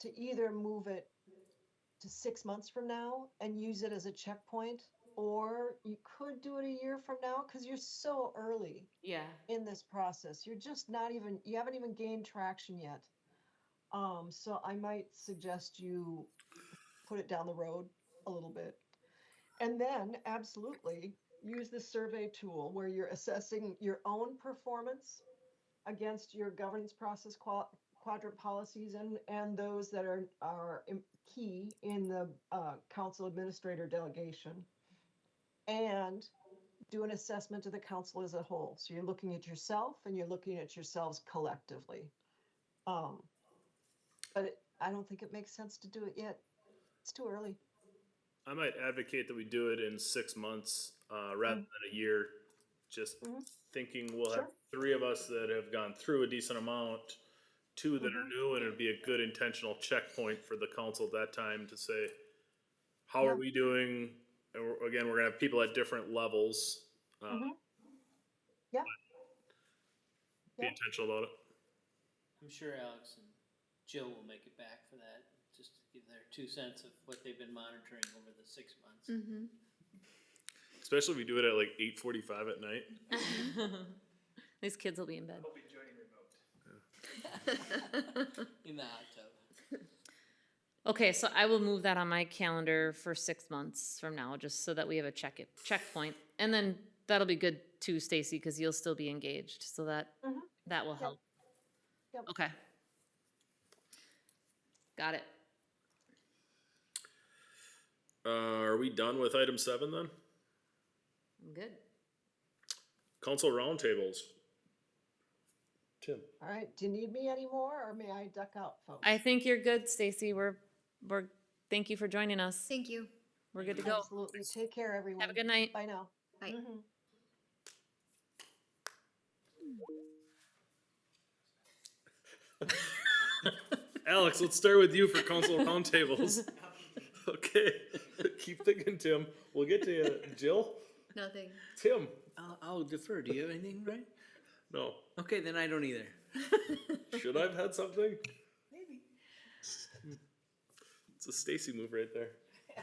to either move it to six months from now and use it as a checkpoint, or you could do it a year from now because you're so early Yeah. in this process. You're just not even, you haven't even gained traction yet. Um, so I might suggest you put it down the road a little bit. And then absolutely use the survey tool where you're assessing your own performance against your governance process qua- quadrant policies and, and those that are, are im- key in the, uh, council administrator delegation. And do an assessment of the council as a whole. So you're looking at yourself and you're looking at yourselves collectively. Um, but it- I don't think it makes sense to do it yet. It's too early. I might advocate that we do it in six months uh, rather than a year. Just thinking we'll have Mm. Mm-hmm. Sure. three of us that have gone through a decent amount, two that are Mm-hmm. new, and it'd be a good intentional checkpoint for the council at that time to say, how Yeah. are we doing? And we're, again, we're gonna have people at different levels. Uh, Mm-hmm. Yeah. Be Yeah. intentional about it. I'm sure Alex and Jill will make it back for that, just to give their two cents of what they've been monitoring over the six months. Especially if we do it at like eight forty-five at night. Mm-hmm. These kids will be in bed. I'll be joining remote. In the hot tub. Okay, so I will move that on my calendar for six months from now, just so that we have a check it checkpoint, and then that'll be good too, Stacy, because you'll still be engaged, so that that will help. Mm-hmm. Yep. Okay. Got it. Uh, are we done with item seven then? I'm good. Council roundtables. Tim. All right. Do you need me anymore or may I duck out, folks? I think you're good, Stacy. We're we're thank you for joining us. Thank you. We're good to go. Absolutely. Take care, everyone. Have a good night. Bye now. Mm-hmm. Bye. Alex, let's start with you for council roundtables. Okay, keep thinking, Tim. We'll get to you. Jill, Nothing. Tim. I'll, I'll defer. Do you have anything, Brian? No, Okay, then I don't either. should I have had something? Hmm. Maybe. It's a Stacy move right there.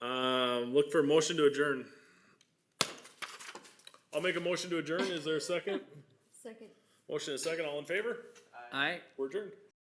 Um, look for a motion to adjourn. I'll make a motion to adjourn. Is there a second? Second. Motion and a second. All in favor? All right. We're adjourned.